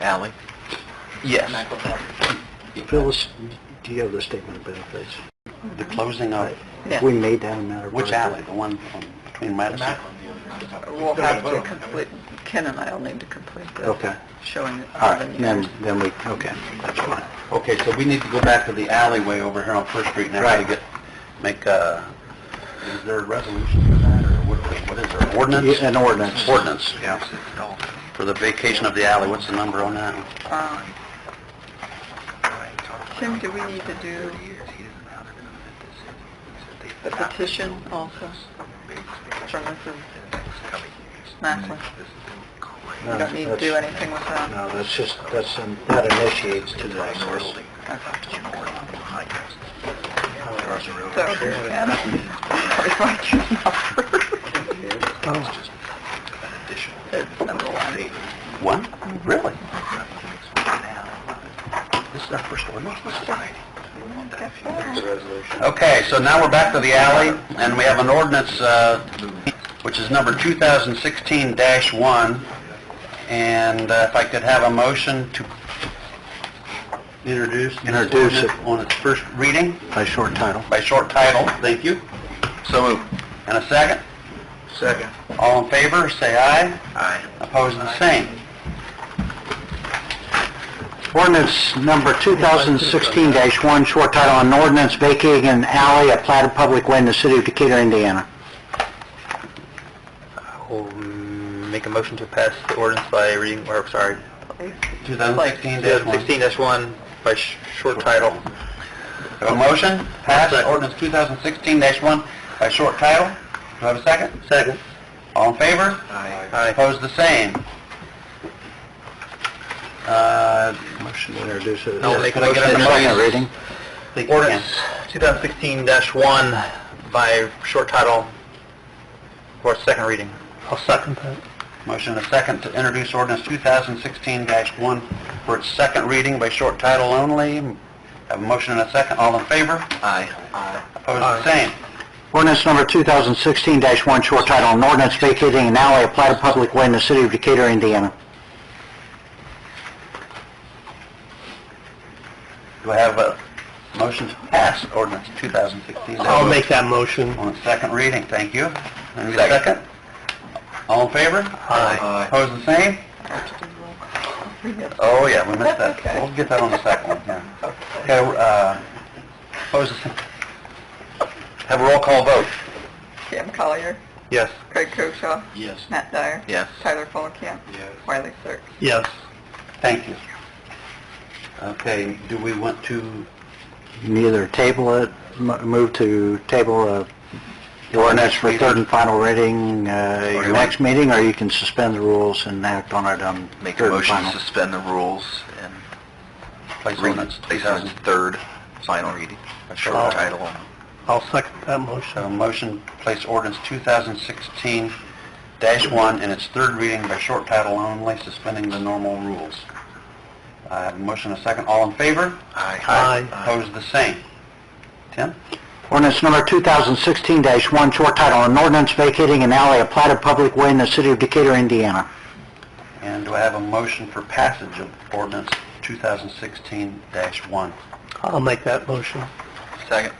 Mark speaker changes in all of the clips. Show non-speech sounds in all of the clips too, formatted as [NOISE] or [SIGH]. Speaker 1: Allie? Yes.
Speaker 2: Phyllis, do you have the statement of benefits?
Speaker 3: The closing of,
Speaker 1: Yeah.
Speaker 2: We made that a matter of...
Speaker 3: which
Speaker 2: record.
Speaker 3: alley? The one on- between Madison?
Speaker 4: We'll have to complete, Ken and I will need to complete the
Speaker 2: Okay,
Speaker 4: showing of
Speaker 2: all
Speaker 4: the
Speaker 2: right,
Speaker 4: years.
Speaker 2: then, then we, okay, that's fine.
Speaker 3: Okay, so we need to go back to the alleyway over here on First Street now.
Speaker 2: Right.
Speaker 3: Get, make a, is there a resolution for that, or what, what is there, ordinance?
Speaker 2: Yeah, an ordinance.
Speaker 3: Ordinance,
Speaker 2: Yeah.
Speaker 3: for the vacation of the alley, what's the number on that?
Speaker 4: Uh, Tim, do we need to do the
Speaker 1: Uh,
Speaker 4: petition also from Mrs. Macklin? We don't need to do anything with that?
Speaker 2: No, that's just, that's, um, that initiates today's ordinance.
Speaker 4: So, [LAUGHS] Anna, it's like your [LAUGHS] number. It's number one. Mm-hmm.
Speaker 3: What? Really? This is our first ordinance? Okay, so now we're back to the alley, and we have an ordinance, uh, which is number 2016-1, and uh, if I could have a motion to introduce this
Speaker 2: Introduce it.
Speaker 3: ordinance on its first reading
Speaker 2: By short title.
Speaker 3: by short title, thank you,
Speaker 1: So moved.
Speaker 3: and a second.
Speaker 2: Second.
Speaker 3: All in favor, say aye.
Speaker 1: Aye.
Speaker 3: Opposed, the same.
Speaker 2: Ordinance number 2016-1, short title, an ordinance vacating an alley at platted public way in the city of Decatur, Indiana.
Speaker 1: We'll make a motion to pass the ordinance by reading, or, sorry,
Speaker 3: 2016-1.
Speaker 1: 2016-1 by sh- short title.
Speaker 3: Have a motion, pass ordinance 2016-1 by short title. Do I have a second?
Speaker 1: Second.
Speaker 3: All in favor?
Speaker 1: Aye.
Speaker 3: Opposed, the same. Uh,
Speaker 2: Motion to introduce it.
Speaker 1: I'll make a
Speaker 2: Could I get
Speaker 1: motion.
Speaker 2: Second reading.
Speaker 3: Ordinance.
Speaker 1: Ordinance 2016-1 by short title for its second reading.
Speaker 3: I'll second that. Motion and a second to introduce ordinance 2016-1 for its second reading by short title only. Have a motion and a second. All in favor?
Speaker 1: Aye.
Speaker 3: Opposed, the same.
Speaker 2: Ordinance number 2016-1, short title, an ordinance vacating an alley at platted public way in the city of Decatur, Indiana.
Speaker 3: Do I have a motion to pass ordinance 2016-1?
Speaker 2: that motion.
Speaker 3: On its second reading, thank you. And a second? All in favor?
Speaker 1: Aye.
Speaker 3: Opposed, the same? Oh, yeah, we missed that.
Speaker 4: That's okay.
Speaker 3: We'll get that on the second one, yeah. Okay, uh, opposed, the same? Have a roll call vote.
Speaker 4: Tim Collier,
Speaker 3: Yes.
Speaker 4: Craig Koshaw,
Speaker 1: Yes.
Speaker 4: Matt Dyer.
Speaker 1: Yes.
Speaker 4: Tyler Fulenkamp.
Speaker 1: Yes.
Speaker 4: Wiley Sirk.
Speaker 3: Yes. Thank you. Okay, do we want to,
Speaker 2: Neither table it, mo- move to table uh, the ordinance for third and final reading uh,
Speaker 3: you
Speaker 2: your
Speaker 3: want-
Speaker 2: next meeting, or you can suspend the rules and act on it on
Speaker 1: Make a
Speaker 2: third and
Speaker 1: motion to
Speaker 2: final.
Speaker 1: suspend the rules and
Speaker 3: place
Speaker 1: read
Speaker 3: ordinance uh,
Speaker 1: it, place it on its third, final reading, by short
Speaker 3: I'll-
Speaker 1: title only.
Speaker 3: I'll second that motion. A motion to place ordinance 2016-1 in its third reading by short title only, suspending the normal rules. I have a motion, a second, all in favor?
Speaker 1: Aye.
Speaker 3: Opposed, the same. Tim?
Speaker 2: Ordinance number 2016-1, short title, an ordinance vacating an alley at platted public way in the city of Decatur, Indiana.
Speaker 3: And do I have a motion for passage of ordinance 2016-1?
Speaker 2: I'll make that motion.
Speaker 1: Second.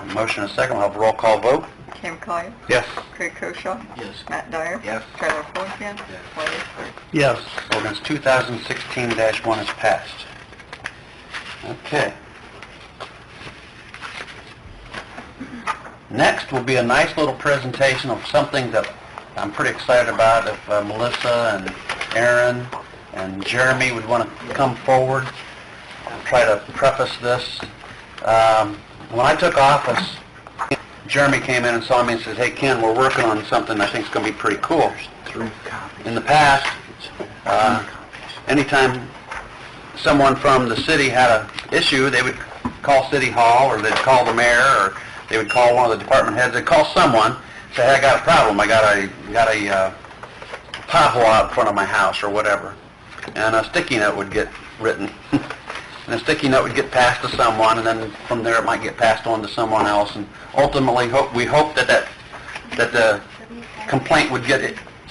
Speaker 3: A motion, a second, we'll have a roll call vote.
Speaker 4: Tim Collier,
Speaker 3: Yes.
Speaker 4: Craig Koshaw.
Speaker 1: Yes.
Speaker 4: Matt Dyer.
Speaker 1: Yes.
Speaker 4: Tyler Fulenkamp. Wiley Sirk.
Speaker 2: Yes.
Speaker 3: Ordinance 2016-1 is passed. Okay. Next will be a nice little presentation of something that I'm pretty excited about, if uh, Melissa and Aaron and Jeremy would want to come forward and try to preface this. Um, When I took office, Jeremy came in and saw me and said, "Hey, Ken, we're working on something I think is going to be pretty cool."
Speaker 2: Three copies.
Speaker 3: In the past, uh, anytime someone from the city had a issue, they would call City Hall, or they'd call the mayor, or they would call one of the department heads, they'd call someone, say, hey, I got a problem, I got a, got a uh, pothole out in front of my house, or whatever. And a sticky note would get written, [LAUGHS] and a sticky note would get passed to someone, and then from there, it might get passed on to someone else, and ultimately, hope, we hope that that, that the complaint would get